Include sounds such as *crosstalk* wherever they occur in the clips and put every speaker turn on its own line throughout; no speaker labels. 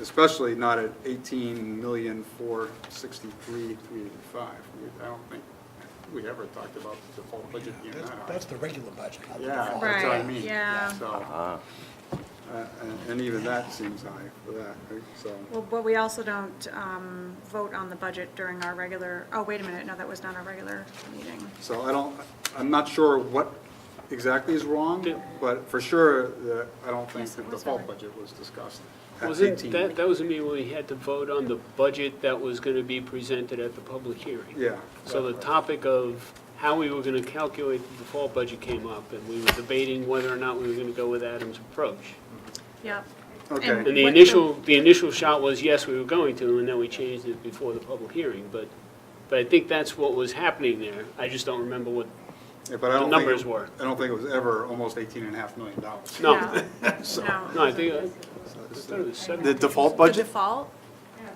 especially not at eighteen million, four sixty-three, three eighty-five. I don't think we ever talked about the default budget here
That's,
now.
that's the regular budget. not the
Yeah,
default.
that's what I
Right,
mean.
yeah.
So, uh, and- and even that seems high for that, right? so.
Well, but we also don't um, vote on the budget during our regular, oh, wait a minute, no, that was not our regular meeting.
So I don't, I'm not sure what exactly is wrong, but for sure, the- I don't think
Yes,
the
it was
default
over.
budget was discussed at
Was it,
18.
that, that was a meeting when we had to vote on the budget that was going to be presented at the public hearing.
Yeah.
So the topic of how we were going to calculate the default budget came up, and we were debating whether or not we were going to go with Adams' approach.
Yep.
Okay.
And the
what
initial, the initial shot was, yes, we were going to, and then we changed it before the public hearing, but, but I think that's what was happening there. I just don't remember what,
Yeah, but I don't think
numbers
it-
were.
I don't think it was ever almost 18 and a half million dollars.
No.
*laughs*
No.
no, I think, I I thought it was
The
seven.
default
The
budget?
default?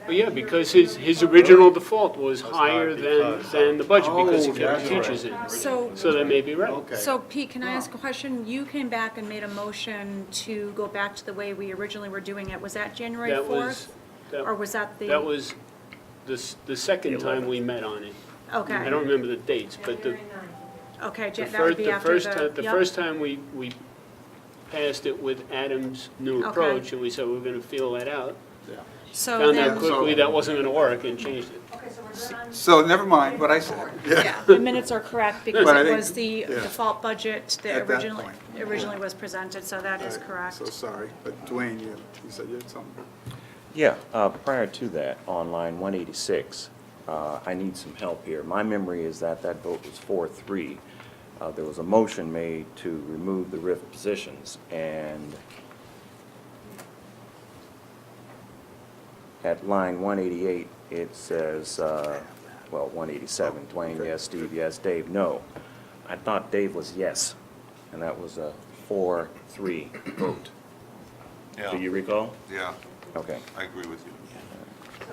But yeah, because his, his original default was higher than,
because-
than the budget, because he
Oh,
kept the
that's right.
teachers in.
So,
So that may be right.
Okay.
so Pete, can I ask a question? You came back and made a motion to go back to the way we originally were doing it. Was that January
That was,
4th? Or
that
was that the?
that was the, s- the second time we met on it. I
Okay,
don't remember the dates, but the,
okay,
the
Jan- that
first,
would be
the
after
first
the.
time, the
yep.
first time we, we passed it with Adam's new
Okay.
approach, and we said we were gonna feel that out.
Yeah.
So
Found
then,
out quickly that wasn't gonna work and changed it.
So never mind what I said.
yeah,
*laughs*
the minutes are correct because
But I
it
think-
was the
yeah.
default budget that
At that
originally,
point.
originally was presented, so that is correct.
So sorry, but Dwayne, you you said you had something.
Yeah, uh, prior to that, on line 186, uh, I need some help here. My memory is that that vote was 4-3. Uh, There was a motion made to remove the RIF positions, and at line 188, it says, uh, well, 187, Dwayne, yes, Steve, yes, Dave, no. I thought Dave was yes, and that was a 4-3 vote. Do you
Yeah,
recall?
yeah,
Okay.
I agree with you.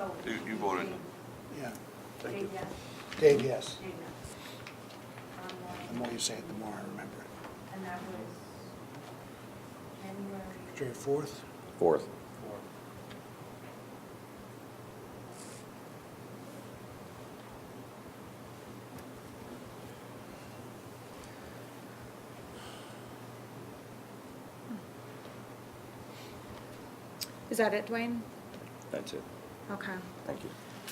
uh,
You- You voted,
Yeah.
Dave, yes,
Dave, yes.
Dave, yes. Um,
The more you say it, the more I remember it.
And that was January,
January fourth?
Fourth.
Is that it, Dwayne?
That's it.
Okay.
Thank you.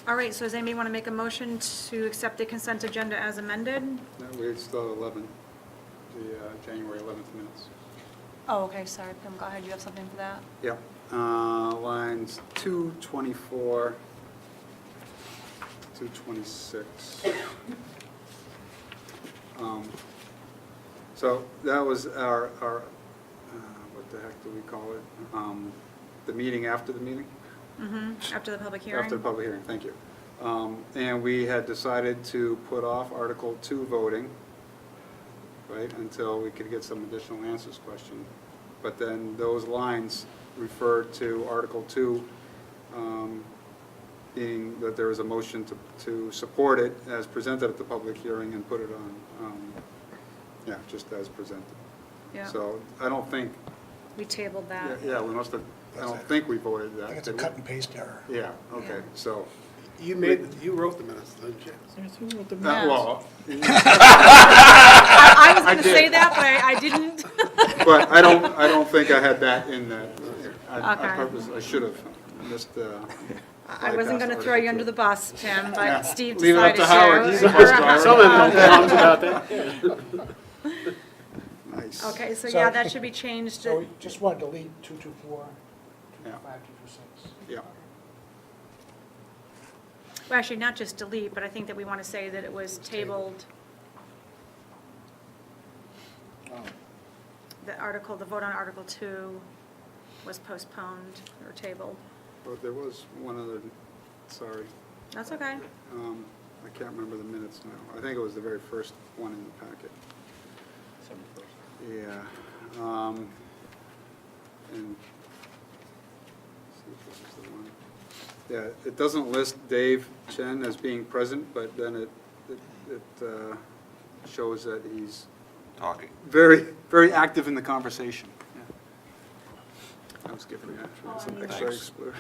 All right, so does anybody want to make a motion to accept the consent agenda as amended?
No, we still have 11, the uh, January 11th minutes.
Oh, okay, sorry, Pam, go ahead, you have something for that?
Yep, uh, lines two twenty-four, two twenty-six. Um, So that was our, our, uh, what the heck do we call it? Um, The meeting after the meeting?
Mm-hmm, after the public hearing?
After the public hearing, thank you. Um, And we had decided to put off Article Two voting, right, until we could get some additional answers question. But then those lines refer to Article Two um, being that there is a motion to, to support it as presented at the public hearing and put it on, um, yeah, just as presented.
Yeah,
So I don't think,
we tabled
yeah,
that.
yeah, we must have, I don't think we voted that.
I think it's a
did we?
cut and paste error.
Yeah, okay, so.
You made, you wrote the minutes, didn't you?
Yeah.
Well,
I I was going to
did.
say that, but I
*laughs*
I didn't. *laughs*
but I don't, I don't think I had that in the, I I
Okay.
purpose, I should have missed, uh.
I wasn't going to throw you under the bus, Pam, but Steve
Leave it up to Howard,
decided to.
he's the bus
*laughs*
driver.
Someone complained about
*laughs*
that.
Nice.
Okay, so
So-
yeah, that should be changed.
So we just want to delete two two four, two
Yeah.
two five, two two six.
Yeah,
Well, actually, not just delete, but I think that we want to say that it was tabled, the article, the vote on Article 2 was postponed or tabled.
but there was one other, sorry,
That's okay.
um, I can't remember the minutes now. I think it was the very first one in the packet. Yeah, um, and, see if this is the one. Yeah, it doesn't list Dave Chen as being present, but then it, it, it, uh, shows that he's
talking.
very, very active in the conversation. Yeah. That was good for you. Some extra
Thanks.
explanation.